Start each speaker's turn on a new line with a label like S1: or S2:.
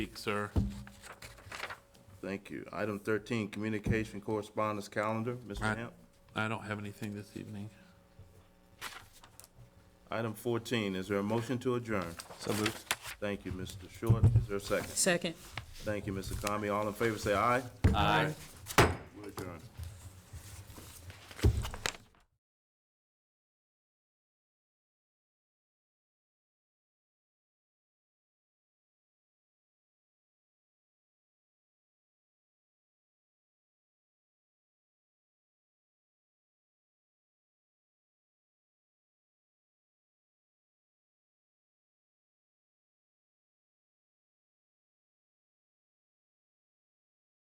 S1: Speak, sir.
S2: Thank you. Item 13, communication correspondence calendar, Mr.
S1: Right.
S2: Hamp.
S1: I don't have anything this evening.
S2: Item 14, is there a motion to adjourn?
S3: So moved.
S2: Thank you, Mr. Short. Is there a second?
S4: Second.
S2: Thank you, Mr. Kami. All in favor, say aye.
S3: Aye.
S2: We adjourn.